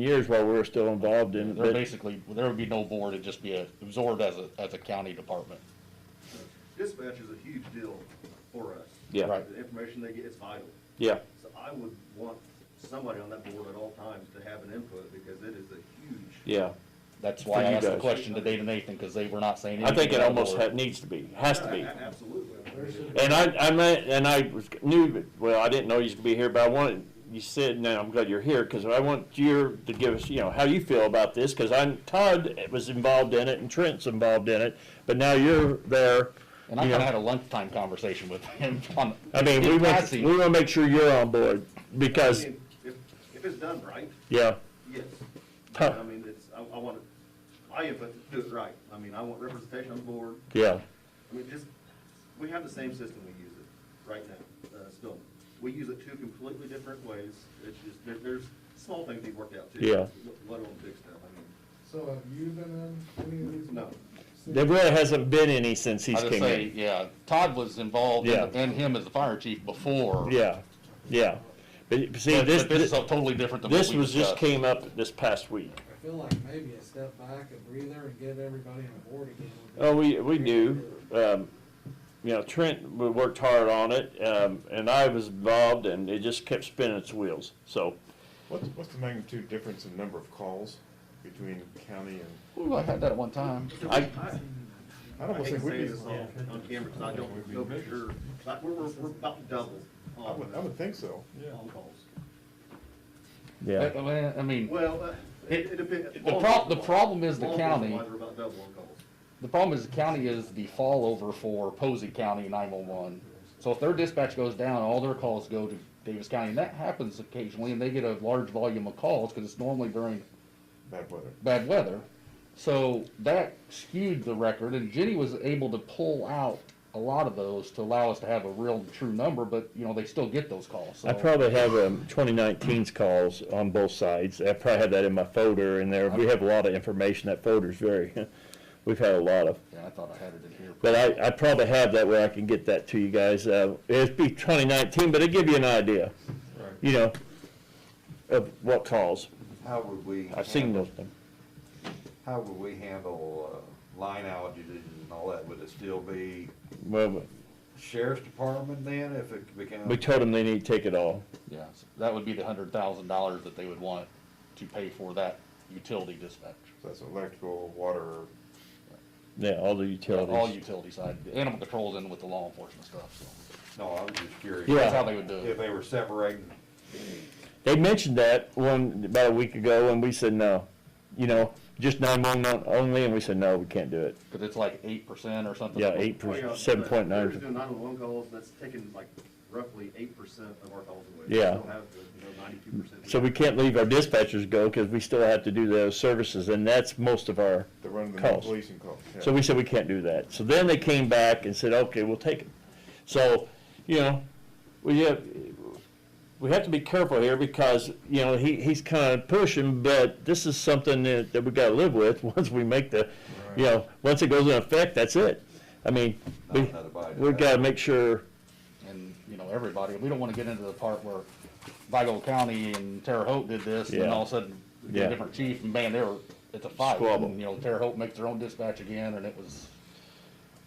years while we were still involved in They're it. basically, there would be no board, it'd just be a- absorbed as a, as a county department. Dispatch is a huge deal for us. Yeah. Right. The information they get is vital. Yeah, So I would want somebody on that board at all times to have an input because it is a huge. yeah. That's For why I you asked the guys. question to Dave and Nathan, because they were not saying I anything. think it about almost board. ha- needs to be, has to be. A- Absolutely. And I, I meant, and I was, knew, that- well, I didn't know you was gonna be here, but I wanted, you said, now I'm glad you're here, cause I want you to give us, you know, how you feel about this, cause I'm, Todd was involved in it and Trent's involved in it, but now you're there. And I you know. kinda had a lunchtime conversation with him on. I mean, we in want, passing. we wanna make sure you're on board, I because, mean, If, if it's done right, yeah, yes. Huh. I mean, it's, I, I want to, my input to do it right. I mean, I want representation on the board. yeah, I mean, just, we have the same system we use it right now, uh, still. We use it two completely different ways. It's just, there, there's small things we've worked out too. Yeah. Let alone big stuff, I mean. So have you been in any of these? No. there really hasn't been any since I he's just came say, in. yeah, Todd was involved and, Yeah. and him as the fire chief before. Yeah, yeah, but see, But this, but this this is totally different than what this we was, just discussed. came up this past week. I feel like maybe a step back, a breather, and get everybody on board again. would be- Oh, we, we knew, um, you know, Trent w- worked hard on it, um, and I was involved, and it just kept spinning its wheels, so. What's, what's the magnitude difference in number of calls between county and, Ooh, I had that at one time. I, I I don't hate think to we'd say be, this on, on camera, because I don't know for sure, but we're, we're, we're about double I would, I on, would think so. on calls. yeah, Uh, well, I mean, Well, uh, it, it depends. the prob- the problem is the Law enforcement county. wise, We're about double on calls. the problem is the county is the fall over for Posey County nine-one-one. So if their dispatch goes down, all their calls go to Davis County, and that happens occasionally, and they get a large volume of calls, because it's normally during Bad weather. bad weather. So that skewed the record, and Jenny was able to pull out a lot of those to allow us to have a real true number, but, you know, they still get those calls, so. I probably have, um, 2019's calls on both sides, I probably have that in my folder in there, we have a lot of information, that folder's very, we've had a lot of. Yeah, I thought I had it in here. But I, I probably have that where I can get that to you guys, uh, it'd be twenty nineteen, but it'd give you an idea, you know, of what calls, How would we, I've seen handle- those, how would we handle uh, line outages and all that? Would it still be well, sheriff's department then if it becomes? we told them they need to take it all. Yeah, so that would be the hundred thousand dollars that they would want to pay for that utility dispatch. So that's electrical, water, Yeah, all the utilities. All utility side, animal control's in with the law enforcement stuff, so No, I was just curious. Yeah. that's how they would do If it. they were separating, They mentioned that one, about a week ago, and we said no. You know, just nine-one-one only, and we said, no, we can't do it. Cause it's like eight percent or something. Yeah, eight Oh, yeah, percent, but seven point We're just nine. doing nine-one-one calls, that's taking like roughly eight percent of our calls away. We Yeah. Still have the, you know, ninety-two percent. So we can't leave our dispatchers go, because we still have to do those services, and that's most of our the run of the calls. policing calls. yeah. So we said, we can't do that. So then they came back and said, okay, we'll take it. So, you know, we have, we have to be careful here because, you know, he, he's kind of pushing, but this is something that, that we gotta live with once we make the, you know, once it goes in effect, that's it. I mean, we, Not everybody does we that. gotta make sure, and, you know, everybody, we don't wanna get into the part where Vigo County and Terre Haute did this, and then Yeah. all of a sudden, we get Yeah. a different chief, and man, they were, it's a fight. Squabble. And, You know, Terre Haute makes their own dispatch again, and it was,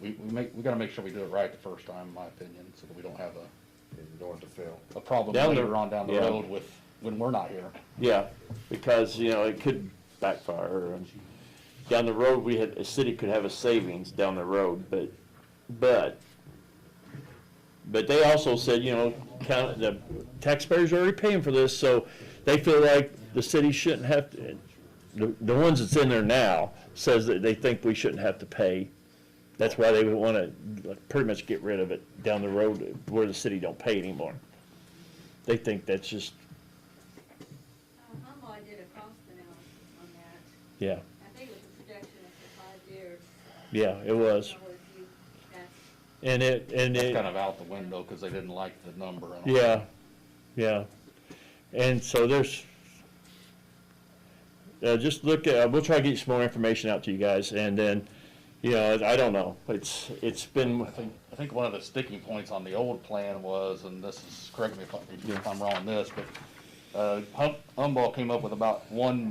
we, we make, we gotta make sure we do it right the first time, in my opinion, so that we don't have a, And you don't want to fail. a problem Down the- later on down the yeah. road with, when we're not here. yeah, because, you know, it could backfire. and Down the road, we had, a city could have a savings down the road, but, but But they also said, you know, count, the taxpayers are already paying for this, so they feel like the city shouldn't have to, the, the ones that's in there now says that they think we shouldn't have to pay. That's why they would wanna like, pretty much get rid of it down the road where the city don't pay anymore. They think that's just, Um, Humble, I did a cost analysis on that. yeah, I think it was a projection of the five years. yeah, it was. Or if you, that's, And it, and That's it, kind of out the window, cause they didn't like the number and all. yeah, yeah. And so there's, uh, just look at, we'll try to get some more information out to you guys, and then, you know, I don't know, it's, it's been, I think, I think one of the sticking points on the old plan was, and this is, correct me if I- if I'm wrong on this, but uh, Hump, Humble came up with about one